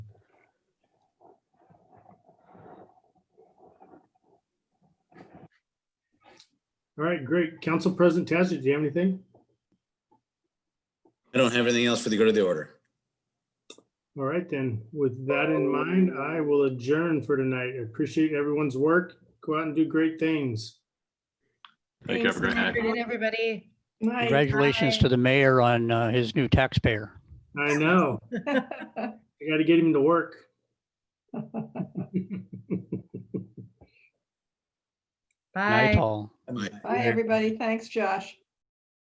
All right, great. Council President Tassett, do you have anything? I don't have anything else for the good of the order. All right, then, with that in mind, I will adjourn for tonight. I Appreciate everyone's work. Go out and do great things. Thank you. Have a great night. Good night, everybody. Congratulations to the mayor on uh, his new taxpayer. I know. I gotta get him to work. Night Bye. all. Bye, everybody. Thanks, Josh.